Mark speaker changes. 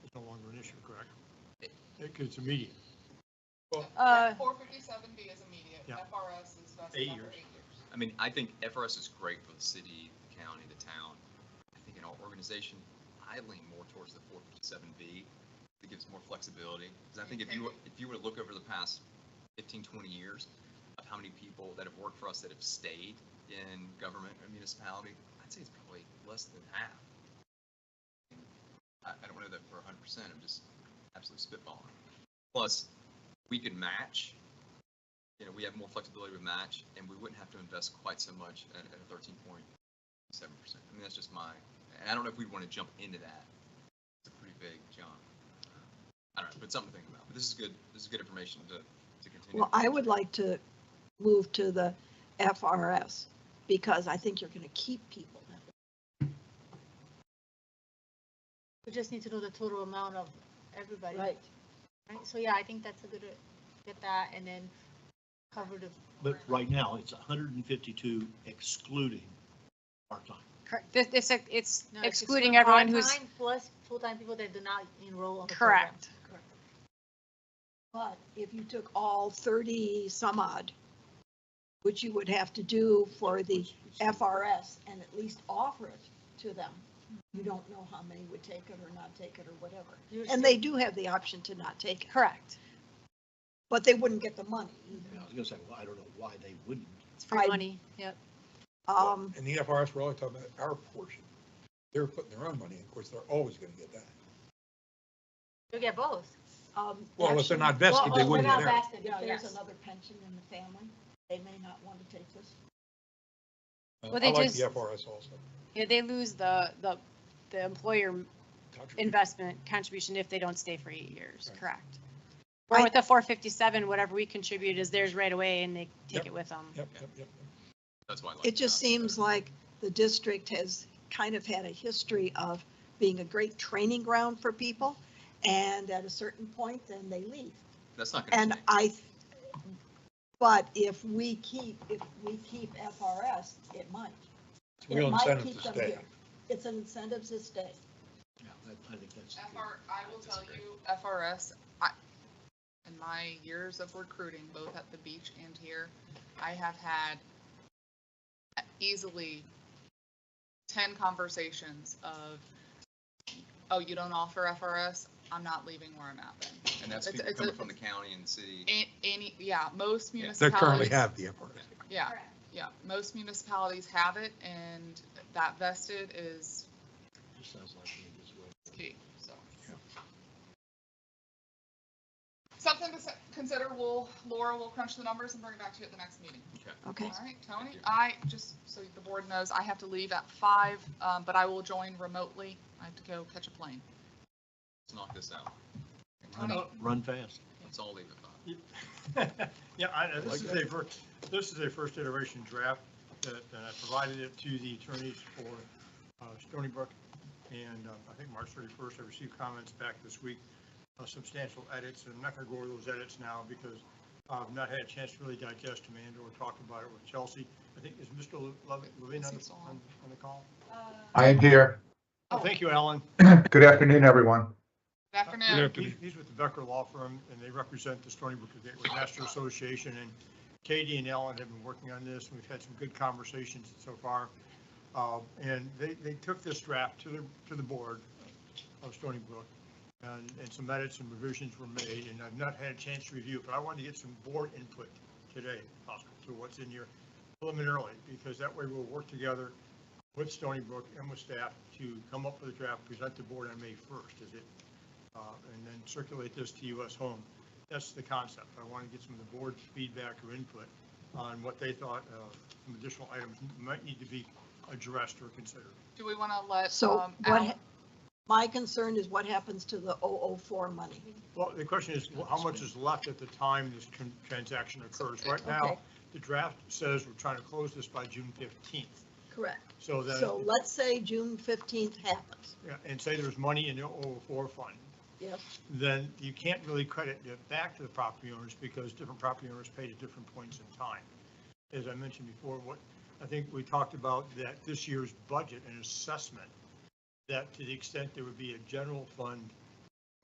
Speaker 1: issue, correct? It's immediate.
Speaker 2: Uh,
Speaker 3: Four fifty-seven B is immediate,
Speaker 1: Yeah.
Speaker 3: FRS is vested
Speaker 1: Eight
Speaker 3: after
Speaker 1: years.
Speaker 3: eight years.
Speaker 4: I mean, I think FRS is great for the city, the county, the town. I think in our organization, I lean more towards the four fifty-seven B. It gives more flexibility, because I think if you, were- if you were to look over the past 15, 20 years of how many people that have worked for us that have stayed in government or municipality, I'd say it's probably less than half. I, I don't know that for hundred percent, I'm just absolutely spitballing. Plus, we can match you know, we have more flexibility with match and we wouldn't have to invest quite so much at, at a thirteen point seven percent. I mean, that's just my, and I don't know if we'd want to jump into that. It's a pretty big jump. I don't know, but something to think about. But this is good, this is good information to, to continue.
Speaker 5: Well, I would like to move to the FRS because I think you're going to keep people.
Speaker 2: we just need to know the total amount of everybody. Right, so yeah, I think that's a good, get that and then cover the,
Speaker 6: But right now, it's hundred and fifty-two excluding part-time.
Speaker 7: Correct. This, it's, it's
Speaker 2: no, it's
Speaker 7: excluding everyone who's,
Speaker 2: part-time Plus full-time people that do not enroll on the program.
Speaker 7: correct.
Speaker 5: But if you took all 30 some odd, which you would have to do for the FRS and at least offer it to them, you don't know how many would take it or not take it or whatever.
Speaker 2: You're
Speaker 5: And
Speaker 2: still-
Speaker 5: they do have the option to not take it,
Speaker 7: Correct.
Speaker 5: but they wouldn't get the money
Speaker 6: And
Speaker 5: either.
Speaker 6: I was gonna say, well, I don't know why they wouldn't.
Speaker 7: It's free
Speaker 5: I-
Speaker 7: money. Yep.
Speaker 5: Um,
Speaker 8: And the FRS, we're only talking about our portion. They're putting their own money in, of course, they're always gonna get that.
Speaker 2: You get both.
Speaker 5: um,
Speaker 8: Well, if they're not
Speaker 5: actually-
Speaker 8: vested, they
Speaker 2: Well, oh,
Speaker 8: wouldn't
Speaker 2: without
Speaker 8: get that.
Speaker 2: vested,
Speaker 5: Yeah,
Speaker 2: yes.
Speaker 5: there's another pension in the family. They may not want to take this.
Speaker 8: Uh,
Speaker 7: Well,
Speaker 8: I
Speaker 7: they
Speaker 8: like
Speaker 7: just-
Speaker 8: the FRS also.
Speaker 7: Yeah, they lose the, the, the employer
Speaker 8: Contribution.
Speaker 7: investment contribution if they don't stay for eight years.
Speaker 8: Right.
Speaker 7: Correct.
Speaker 5: I-
Speaker 7: Or with the four fifty-seven, whatever we contribute is theirs right away and they take
Speaker 8: Yep.
Speaker 7: it with them.
Speaker 8: Yep, yep, yep.
Speaker 4: That's why I like.
Speaker 5: It just
Speaker 4: that.
Speaker 5: seems like the district has kind of had a history of being a great training ground for people, and at a certain point, then they leave.
Speaker 4: That's not going
Speaker 5: And
Speaker 4: to change.
Speaker 5: I, but if we keep, if we keep FRS, it might.
Speaker 8: It's a
Speaker 5: It
Speaker 8: real
Speaker 5: might
Speaker 8: incentive
Speaker 5: keep
Speaker 8: to
Speaker 5: them
Speaker 8: stay.
Speaker 5: here. It's an incentive to stay.
Speaker 6: Yeah, that- I think that's.
Speaker 3: FR, I will tell you, FRS, I, in my years of recruiting, both at the beach and here, I have had easily ten conversations of, oh, you don't offer FRS, I'm not leaving where I'm at then.
Speaker 4: And that's
Speaker 3: it's-
Speaker 4: people
Speaker 3: it's a-
Speaker 4: coming from the county and city.
Speaker 3: A- Any, yeah, most
Speaker 4: Yeah.
Speaker 8: They
Speaker 3: municipalities.
Speaker 8: currently have the FRS.
Speaker 3: Yeah, yeah, most municipalities have it, and that vested is
Speaker 6: Just sounds like it is what-
Speaker 3: key, so.
Speaker 8: Yeah.
Speaker 3: Something to s- consider, we'll, Laura will crunch the numbers and bring it back to you at the next meeting.
Speaker 5: Okay.
Speaker 3: All right, Tony,
Speaker 4: Thank you.
Speaker 3: I, just so the board knows, I have to leave at five, um, but I will join remotely, I have to go catch a plane.
Speaker 4: Let's knock this out.
Speaker 6: Run up, Run fast.
Speaker 4: Let's all leave it.
Speaker 1: Yeah, I, I- this
Speaker 8: Like
Speaker 1: is
Speaker 8: that.
Speaker 1: a, fir- this is a first iteration draft that uh, I provided it to the attorneys for uh, Stony Brook. And uh, I think March 31st, I received comments back this week, uh, substantial edits. And I'm not going to go over those edits now because I've not had a chance to really digest them and or talk about it with Chelsea. I think, is Mr. Levin Levine on
Speaker 3: Is he
Speaker 1: the,
Speaker 3: still
Speaker 1: on
Speaker 3: on?
Speaker 1: on the call?
Speaker 9: I am here.
Speaker 1: Oh, thank you, Alan.
Speaker 9: Good afternoon, everyone.
Speaker 3: Good afternoon.
Speaker 1: He's- He's with the Becker Law Firm, and they represent the Stony Brook Gateway Master Association, and Katie and Ellen have been working on this, and we've had some good conversations so far. Uh, And they, they took this draft to the, to the board of Stony Brook, and, and some edits and revisions were made, and I've not had a chance to review, it, but I wanted to get some board input today, if possible, to what's in here preliminarily, because that way we'll work together with Stony Brook and with staff to come up with a draft, present the board on May 1st, is it uh, and then circulate this to US Home. That's the concept. I want to get some of the board's feedback or input on what they thought of some additional items might need to be addressed or considered.
Speaker 3: Do we want to let,
Speaker 5: So
Speaker 3: um,
Speaker 5: what,
Speaker 3: Al-
Speaker 5: ha- my concern is what happens to the 004 money.
Speaker 1: Well, the question is, well, how much is left at the time this tran- transaction occurs? Right now,
Speaker 5: Okay.
Speaker 1: the draft says we're trying to close this by June 15th.
Speaker 5: Correct.
Speaker 1: So then,
Speaker 5: So let's say June 15th happens.
Speaker 1: yeah, and say there's money in the 004 fund.
Speaker 5: Yes.
Speaker 1: then you can't really credit it back to the property owners because different property owners paid at different points in time. As I mentioned before, what, I think we talked about that this year's budget and assessment, that to the extent there would be a general fund